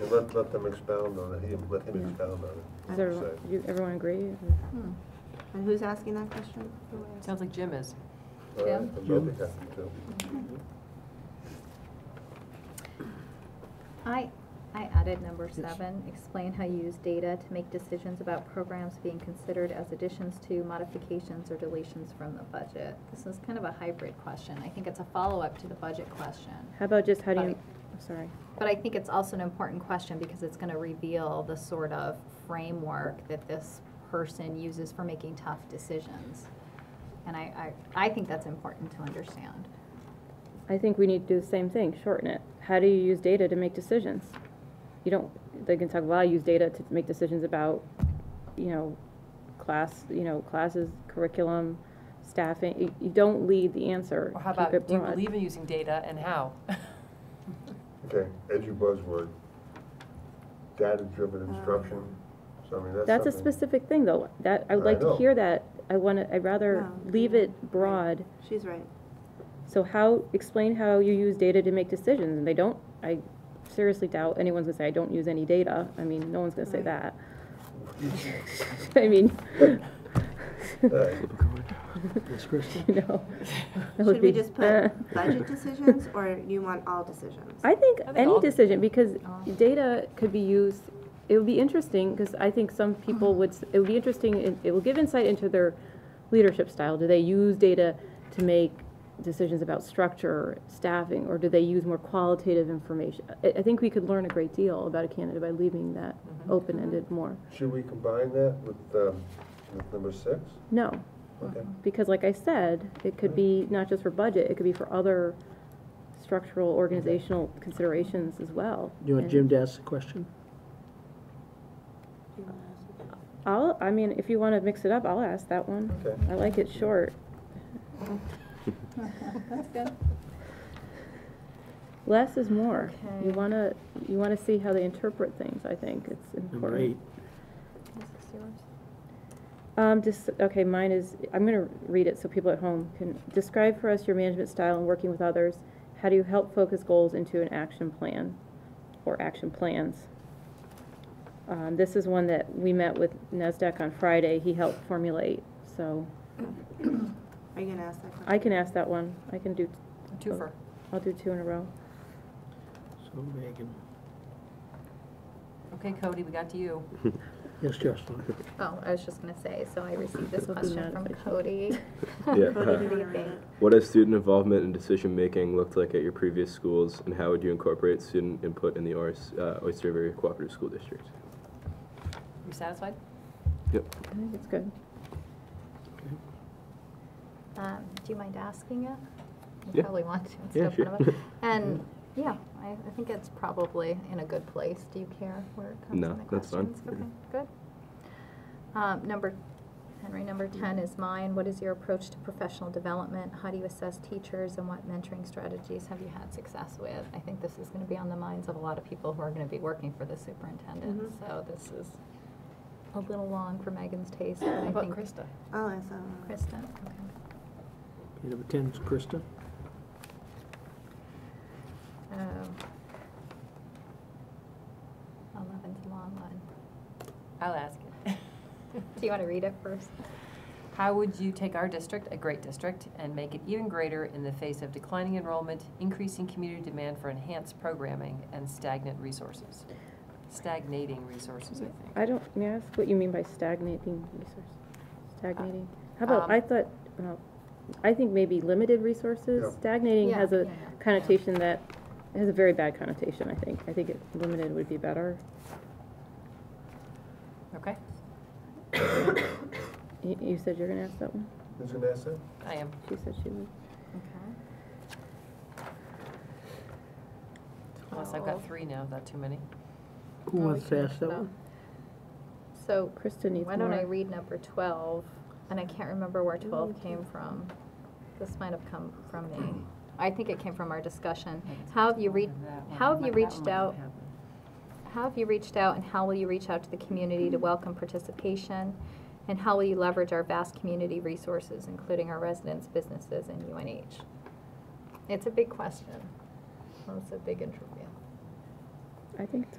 And let, let them expound on it, him, let him Yeah. expound on Does it. everyone, So, you- everyone agree? Hmm. And who's asking that question? Sounds like Jim is. all right, Jim? I'm probably happy to. I, I added number seven, explain how you use data to make decisions about programs being considered as additions to modifications or deletions from the budget. This is kind of a hybrid question. I think it's a follow-up to the budget question. How about just, how do you, Right. I'm sorry. But I think it's also an important question because it's gonna reveal the sort of framework that this person uses for making tough decisions. And I, I, I think that's important to understand. I think we need to do the same thing, shorten it. How do you use data to make decisions? You don't, they can talk, well, I use data to make decisions about, you know, class, you know, classes, curriculum, staffing. You- You don't lead the answer. Or how Keep it about, do you broad. believe in using data and how? Okay, edu buzzword, data-driven instruction, so I mean, that's Um, That's a something- specific thing, though. That, I would I like to know. hear that. I want to, I'd rather No. leave it broad. She's right. So how, explain how you use data to make decisions, and they don't, I seriously doubt anyone's gonna say, I don't use any data, I mean, no one's gonna say Right. that. I mean, All right, Ms. Christie? you know. that would Should we be- just uh. put budget decisions, or you want all decisions? I think I think all any of it. decision, because Oh. data could be used, it would be interesting, because I think some people would, s- it would be interesting, it- it will give insight into their leadership style. Do they use data to make decisions about structure, staffing, or do they use more qualitative information? I, I think we could learn a great deal about a candidate by leaving that open-ended more. should we combine that with, um, with number six? No, Okay, because like I said, it could be not just for budget, it could be for other structural, organizational considerations as well. You want And- Jim to ask the question? I'll, I mean, if you want to mix it up, I'll ask that one. okay. I like it short. That's good. Less is more. You Okay. want to, you want to see how they interpret things, I think. It's Number important. eight. Um, just, okay, mine is, I'm gonna read it so people at home can, describe for us your management style and working with others. How do you help focus goals into an action plan or action plans? Um, this is one that we met with NASDAQ on Friday. He helped formulate, so Are you gonna ask that question? I can ask that one. I can do, A Twofer. I'll do two in a row. So Megan, Okay, Cody, we got to you. yes, Jocelyn? Oh, I was just gonna say, so I received this This will be question from non-fiction. Cody. Yeah. Cody, do you What do wanna you read it? think? What has student involvement in decision making looked like at your previous schools, and how would you incorporate student input in the Oris, uh, Oyster River Cooperative School District? You satisfied? Yep. I think it's good. Um, do you mind asking it? You Yeah. probably want to. It's Yeah, no sure. front of it. And, yeah, I, I think it's probably in a good place. Do you care where it comes No, in the that's fine. questions? Okay, good. Um, number, Henry, number ten is mine. What is your approach to professional development? How do you assess teachers and what mentoring strategies have you had success with? I think this is gonna be on the minds of a lot of people who are gonna be working for the superintendent, Mhm. Mm-hmm. so this is a little long for Megan's taste, but I How think. about Krista? I'll ask that one. Kristen, okay. Okay, Number 10 is Krista. Um, Eleven's a long one. I'll ask it. Do you want to read it first? How would you take our district, a great district, and make it even greater in the face of declining enrollment, increasing community demand for enhanced programming, and stagnant resources? Stagnating resources, I think. I don't, may I ask what you mean by stagnating resources? Stagnating? How about, Um, I thought, well, I think maybe limited resources. Yeah. Stagnating Yeah, has a yeah, yeah. connotation that, it has a very bad connotation, I think. I think it, limited would be better. Okay, You, you said you're gonna ask that one? Who's gonna ask that? I am. She said she would. Okay. Unless I've got three now, is that too many? Who Oh, we wants can to ask that mix it up. one? So, Krista needs why don't I more. read number twelve? And I can't remember where twelve came from. This might have come from me. I think it came from our discussion. How have you reached, how have you reached out How have you reached out and how will you reach out to the community to welcome participation? And how will you leverage our vast community resources, including our residents, businesses, and UNH? It's a big question. Well, It's a big interview. I think it's